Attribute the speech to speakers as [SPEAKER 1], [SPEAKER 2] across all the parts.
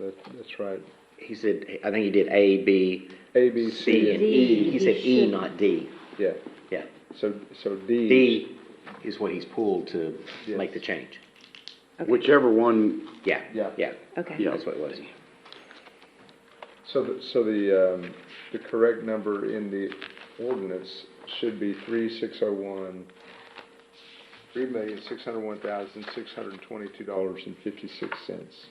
[SPEAKER 1] that- that's right.
[SPEAKER 2] He said, I think he did A, B,
[SPEAKER 1] A, B,
[SPEAKER 2] C,
[SPEAKER 1] C,
[SPEAKER 2] and
[SPEAKER 1] and,
[SPEAKER 2] E. He
[SPEAKER 3] D,
[SPEAKER 2] said
[SPEAKER 3] he
[SPEAKER 2] E,
[SPEAKER 3] should.
[SPEAKER 2] not D.
[SPEAKER 1] yeah.
[SPEAKER 2] Yeah.
[SPEAKER 1] So, so D.
[SPEAKER 2] D is what he's pulled to
[SPEAKER 1] Yes.
[SPEAKER 2] make the change.
[SPEAKER 3] Okay.
[SPEAKER 4] Whichever one,
[SPEAKER 2] Yeah,
[SPEAKER 1] Yeah.
[SPEAKER 2] yeah,
[SPEAKER 3] Okay,
[SPEAKER 4] yeah.
[SPEAKER 2] that's what it was.
[SPEAKER 1] So, the- so the, um, the correct number in the ordinance should be three, six oh one, three million, six hundred one thousand, six hundred twenty-two dollars and fifty-six cents,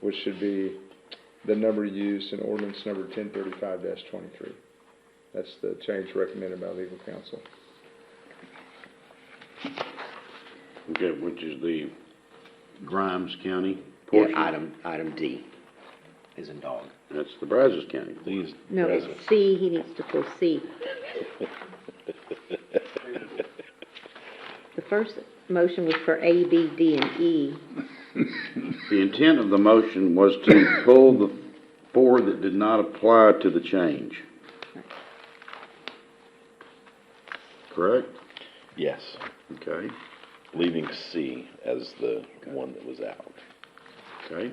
[SPEAKER 1] which should be the number used in ordinance number ten thirty-five twenty-three. That's the change recommended by legal counsel.
[SPEAKER 4] okay, which is the Grimes County
[SPEAKER 2] Yeah,
[SPEAKER 4] portion.
[SPEAKER 2] item, item D is in dog.
[SPEAKER 4] That's the Brazos County. These
[SPEAKER 3] no, it's C, he needs to pull C. The first motion was for A, B, D, and E.
[SPEAKER 4] The intent of the motion was to pull the four that did not apply to the change. Correct?
[SPEAKER 5] Yes,
[SPEAKER 4] Okay,
[SPEAKER 5] leaving C as the one that was out.
[SPEAKER 4] okay.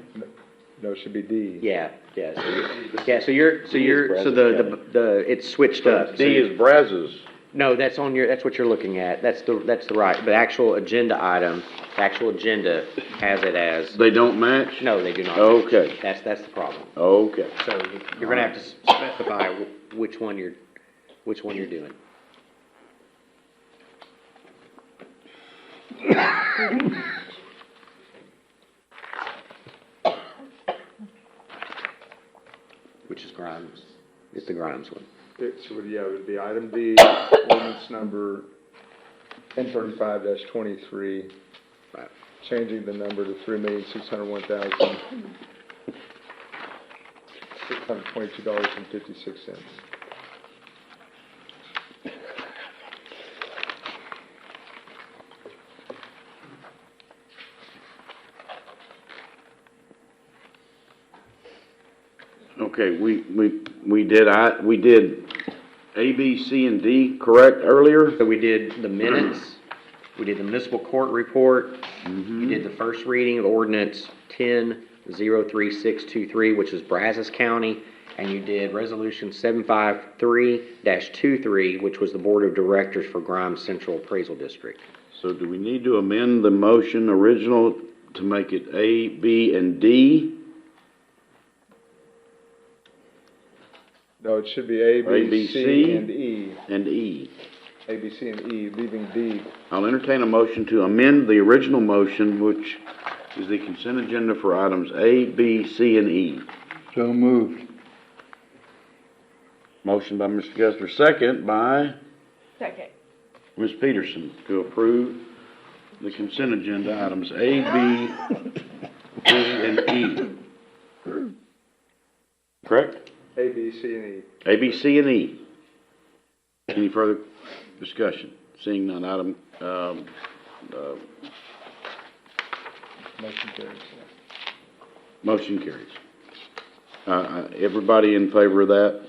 [SPEAKER 1] No, it should be D.
[SPEAKER 2] Yeah, yeah, so you're, yeah, so you're, so
[SPEAKER 5] D is
[SPEAKER 2] you're, so
[SPEAKER 5] Brazos
[SPEAKER 2] the,
[SPEAKER 5] County.
[SPEAKER 2] the, the, it's switched up. So
[SPEAKER 4] D
[SPEAKER 2] you-
[SPEAKER 4] is Brazos.
[SPEAKER 2] No, that's on your, that's what you're looking at. That's the, that's the right, the actual agenda item, the actual agenda has it as,
[SPEAKER 4] They don't match?
[SPEAKER 2] no, they do not.
[SPEAKER 4] Okay.
[SPEAKER 2] That's, that's the problem.
[SPEAKER 4] Okay,
[SPEAKER 2] So you're gonna have to specify wh- which one you're, which one you're doing. Which is Grimes, it's the Grimes one.
[SPEAKER 1] It's, would- yeah, it would be item D, ordinance number ten thirty-five twenty-three,
[SPEAKER 2] Right.
[SPEAKER 1] changing the number to three million, six hundred one thousand, six hundred twenty-two dollars and fifty-six cents.
[SPEAKER 4] okay, we, we, we did, I, we did A, B, C, and D, correct, earlier?
[SPEAKER 2] So we did the minutes, we did the municipal court report, you did the first reading of ordinance ten zero three six two three, which is Brazos County, and you did resolution seven five three dash two three, which was the board of directors for Grimes Central Appraisal District.
[SPEAKER 4] So do we need to amend the motion original to make it A, B, and D?
[SPEAKER 1] No, it should be A,
[SPEAKER 4] A, B,
[SPEAKER 1] B,
[SPEAKER 4] C.
[SPEAKER 1] C, and E,
[SPEAKER 4] and E.
[SPEAKER 1] A, B, C, and E, leaving D.
[SPEAKER 4] I'll entertain a motion to amend the original motion, which is the consent agenda for items A, B, C, and E.
[SPEAKER 6] So moved.
[SPEAKER 4] Motion by Mr. Gessler, second by
[SPEAKER 7] Second.
[SPEAKER 4] Ms. Peterson to approve the consent agenda items A, B, C, and E. Correct?
[SPEAKER 1] A, B, C, and E.
[SPEAKER 4] A, B, C, and E. Any further discussion? Seeing none, item, um, uh,
[SPEAKER 1] Motion carries.
[SPEAKER 4] Motion carries. Uh, Uh, everybody in favor of that?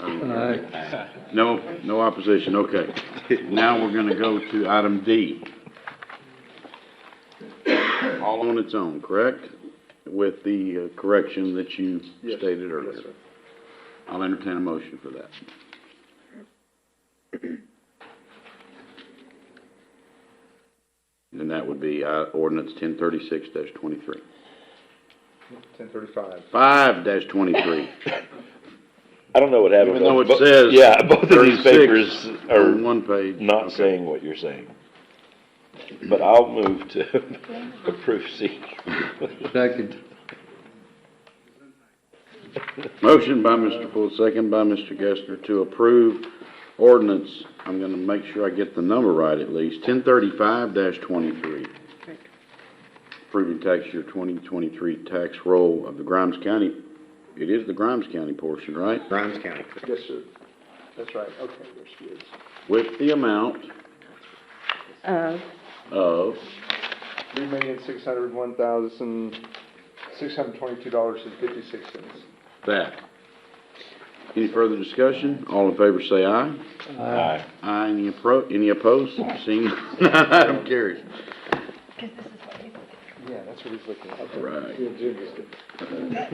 [SPEAKER 4] Aye. No, no opposition, okay. Now we're gonna go to item D. All on its own, correct? With the uh, correction that you
[SPEAKER 1] Yes.
[SPEAKER 4] stated
[SPEAKER 1] Yes,
[SPEAKER 4] earlier.
[SPEAKER 1] sir.
[SPEAKER 4] I'll entertain a motion for that. And that would be, uh, ordinance ten thirty-six twenty-three.
[SPEAKER 1] Ten thirty-five.
[SPEAKER 4] Five dash twenty-three.
[SPEAKER 5] I don't know what happened.
[SPEAKER 4] Even though it
[SPEAKER 5] Bo-
[SPEAKER 4] says
[SPEAKER 5] Yeah, both of
[SPEAKER 4] 36
[SPEAKER 5] these papers are
[SPEAKER 4] on one page.
[SPEAKER 5] not
[SPEAKER 4] Okay.
[SPEAKER 5] saying what you're saying. But I'll move to approve C.
[SPEAKER 6] Second.
[SPEAKER 4] Motion by Mr. Poole, second by Mr. Gessner to approve ordinance, I'm gonna make sure I get the number right at least, ten thirty-five twenty-three. Approving tax year twenty twenty-three tax roll of the Grimes County, it is the Grimes County portion, right?
[SPEAKER 2] Grimes County.
[SPEAKER 1] Yes, sir. That's right, okay, there she is.
[SPEAKER 4] With the amount
[SPEAKER 3] Uh,
[SPEAKER 4] of,
[SPEAKER 1] Three million, six hundred one thousand, six hundred twenty-two dollars and fifty-six cents.
[SPEAKER 4] That. Any further discussion? All in favor say aye.
[SPEAKER 5] Aye.
[SPEAKER 4] Aye, any appro, any opposed? Seeing none, item carries.
[SPEAKER 1] Yeah, that's what he's looking at.
[SPEAKER 4] Right.
[SPEAKER 1] The agenda's good.